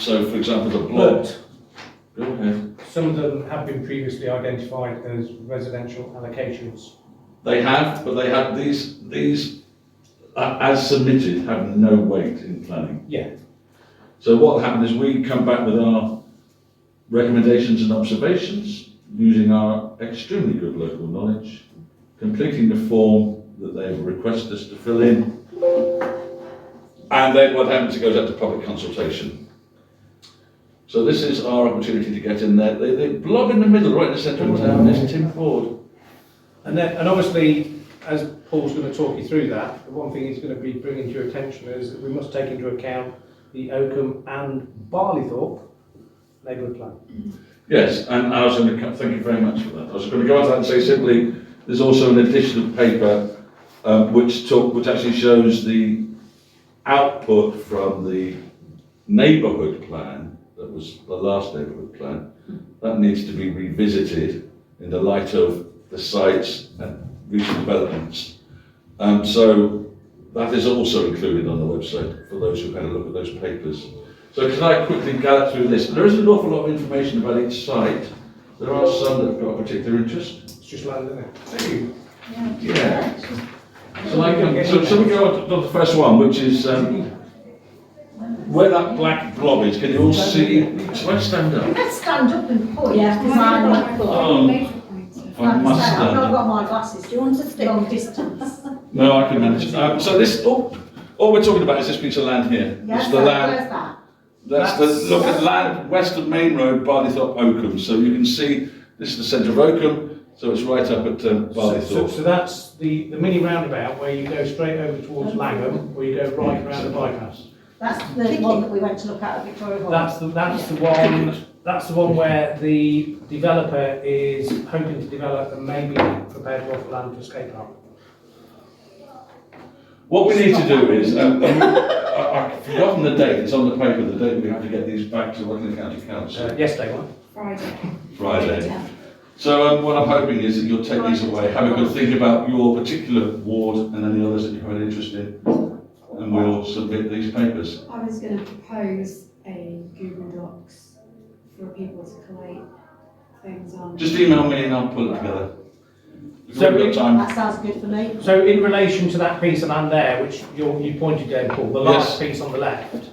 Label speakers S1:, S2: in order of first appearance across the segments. S1: So for example, the blocked, go ahead,
S2: Some of them have been previously identified as residential allocations.
S1: they have, but they have, these, these, a- as submitted, have no weight in planning.
S2: Yeah.
S1: So what happened is we come back with our recommendations and observations, using our extremely good local knowledge, completing the form that they've requested us to fill in. And then what happens, it goes out to public consultation. So this is our opportunity to get in there. They, they blob in the middle, right in the centre of town, there's Tim Ford.
S2: And then, and obviously, as Paul's going to talk you through that, the one thing he's going to be bringing to your attention is that we must take into account the Oakham and Barleythorpe neighbourhood plan.
S1: Yes, and I was going to, thank you very much for that. I was going to go on to that and say simply, there's also an additional paper um, which talk, which actually shows the output from the neighbourhood plan, that was the last neighbourhood plan, that needs to be revisited in the light of the sites and recent developments. Um, so that is also included on the website for those who had a look at those papers. So can I quickly gallop through this? There is an awful lot of information about each site. There are some that have got particular interest.
S2: It's just land, isn't it? Thank you.
S1: Yeah. So I can, so, so we go on to the first one, which is, um, where that black blob is, can you all see? Where stand up?
S3: Let's stand up and point.
S4: Yeah, 'cause I'm not cool.
S1: Oh, I
S3: Like
S1: must
S3: I say, I've
S1: stand
S3: not
S1: up.
S3: got my glasses. Do you want to stick? Long distance.
S1: No, I can manage. Um, so this, all, all we're talking about is this piece of land here. It's
S3: Yes,
S1: the
S3: so
S1: land,
S3: where's that?
S1: that's the, look at land, west of Main Road, Barleythorpe, Oakham. So you can see, this is the centre of Oakham, so it's right up at um,
S2: So, so,
S1: Barleythorpe.
S2: so that's the, the mini roundabout where you go straight over towards Langham, or you go right round the bypass.
S3: That's the one that we went to look at at Victoria Hall.
S2: That's the, that's the one, that's the one where the developer is hoping to develop and maybe prepared to offer land for skate park.
S1: What we need to do is, um, um, I, I've forgotten the date, it's on the paper, the date we have to get these back to Rutland County Council,
S2: Uh, Yesterday one.
S4: Friday.
S1: Friday. So um, what I'm hoping is that you'll take these away, have a good think about your particular ward and any others that you have an interest in, and we'll submit these papers.
S4: I was going to propose a Google Docs for people to collate things on.
S1: Just email me and I'll pull it together. We've already got time.
S3: That sounds good for me.
S2: So in relation to that piece of land there, which you, you pointed down, Paul, the last
S1: Yes.
S2: piece on the left,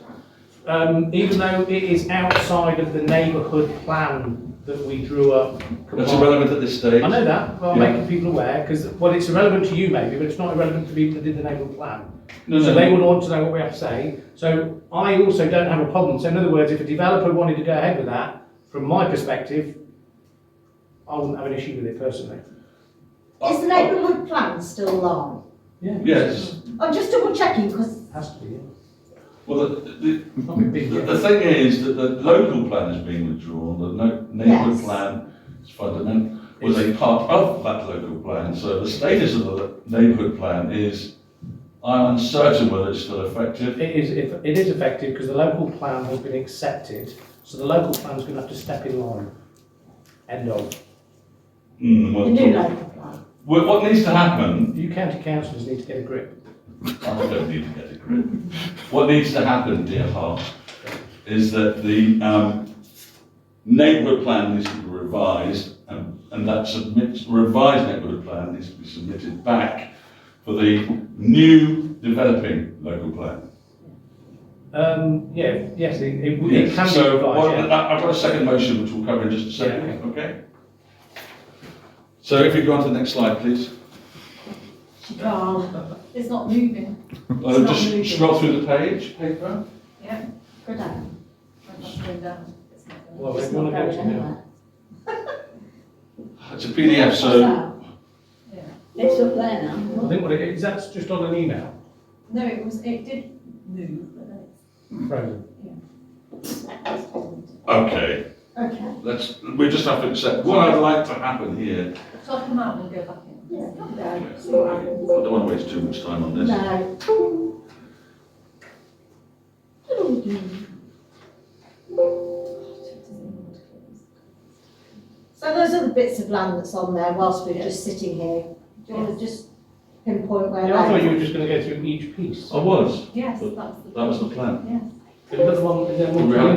S2: um, even though it is outside of the neighbourhood plan that we drew up.
S1: That's
S2: combined-
S1: irrelevant at this stage.
S2: I know that, but I'm
S1: Yeah.
S2: making people aware, because, well, it's irrelevant to you maybe, but it's not irrelevant to people that did the neighbourhood plan.
S1: No,
S2: So
S1: no,
S2: they
S1: no.
S2: would want to know what we have to say, so I also don't have a problem, so in other words, if a developer wanted to go ahead with that, from my perspective, I wouldn't have an issue with it personally.
S3: Is the neighbourhood plan still long?
S2: Yeah.
S1: Yes,
S3: I'm just double checking because
S2: Has to be, yeah.
S1: well, the, the,
S2: Not a big
S1: The,
S2: deal.
S1: the thing is that the local plan is being withdrawn, the no, neighbourhood
S3: Yes.
S1: plan is fundamental, was a part of that local plan, so the status of the neighbourhood plan is, I'm uncertain whether it's still effective.
S2: It is, if, it is effective because the local plan has been accepted, so the local plan's gonna have to step in line. End of.
S1: Hmm,
S3: the
S1: well,
S3: new
S1: talk-
S3: local plan.
S1: Well, what needs to happen,
S2: You county councillors need to get a grip.
S1: I don't need to get a grip, what needs to happen, dear heart, is that the, um, neighbourhood plan needs to be revised, and, and that submits, revised neighbourhood plan needs to be submitted back for the new developing local plan.
S2: Um, yeah, yes, it, it would- it
S1: Yes,
S2: can be
S1: so what-
S2: revised, yeah.
S1: I- I've got a second motion which we'll cover in just a second, okay? So if you go on to the next slide, please.
S3: She can't.
S5: It's not moving.
S1: Uh,
S3: not moving.
S1: Just scroll through the page, paper.
S3: Go down.
S5: It's going down. It's not going
S2: Well,
S3: It's
S2: we
S3: not
S2: wanna go
S3: going
S2: to now.
S3: anywhere.
S1: It's a PDF, so
S3: It's up there
S2: I
S3: now.
S2: think what it is, that's just on an email.
S5: down. No, it was, it did move, but then
S2: Right.
S1: Okay,
S3: Okay.
S1: let's, we just have to accept, what I'd like to happen here,
S5: it's top them out and we'll go back in.
S3: Yeah, come down.
S1: I
S3: See what happens.
S1: don't want to waste too much time on this.
S3: No. So those are the bits of land that's on there whilst we're just sitting here. Do you want to just pinpoint where
S2: Yeah, I thought you
S3: that
S2: were
S3: is?
S2: just gonna go through each piece.
S1: I was,
S5: Yes,
S1: But
S5: that's the.
S1: that was the plan.
S5: Yes.
S2: Another one, is there more?
S1: We have